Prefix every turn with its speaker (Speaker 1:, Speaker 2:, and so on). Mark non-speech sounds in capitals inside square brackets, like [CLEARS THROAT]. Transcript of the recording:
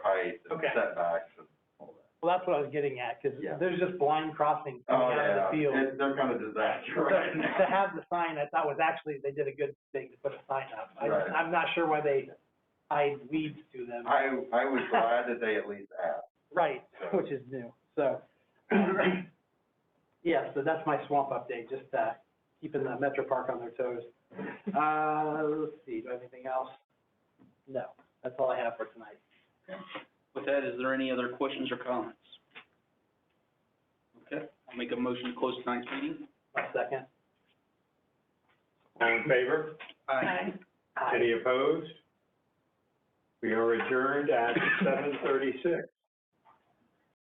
Speaker 1: heights and
Speaker 2: Okay.
Speaker 1: setbacks and all that.
Speaker 2: Well, that's what I was getting at, because
Speaker 1: Yeah.
Speaker 2: there's just blind crossings
Speaker 1: Oh,
Speaker 2: coming out of the
Speaker 1: yeah,
Speaker 2: field.
Speaker 1: it, they're kind of disaster
Speaker 2: So,
Speaker 1: right now.
Speaker 2: [LAUGHS] To [LAUGHS] have the sign, I thought was actually, they did a good thing to put a sign up. I,
Speaker 1: Right.
Speaker 2: I'm not sure why they tied weeds to them.
Speaker 1: I, I was glad that they at least asked.
Speaker 2: Right, which is new, so.
Speaker 1: [CLEARS THROAT]
Speaker 2: Yeah, so that's my swamp update, just, uh, keeping the Metro Park on their toes. Uh, let's see, do I have anything else? No, that's all I have for tonight.
Speaker 3: With that, is there any other questions or comments? Okay, I'll make a motion to close tonight's meeting.
Speaker 2: My second.
Speaker 4: All in favor?
Speaker 3: Aye.
Speaker 2: Aye.
Speaker 4: Any opposed? We are adjourned at seven thirty-six.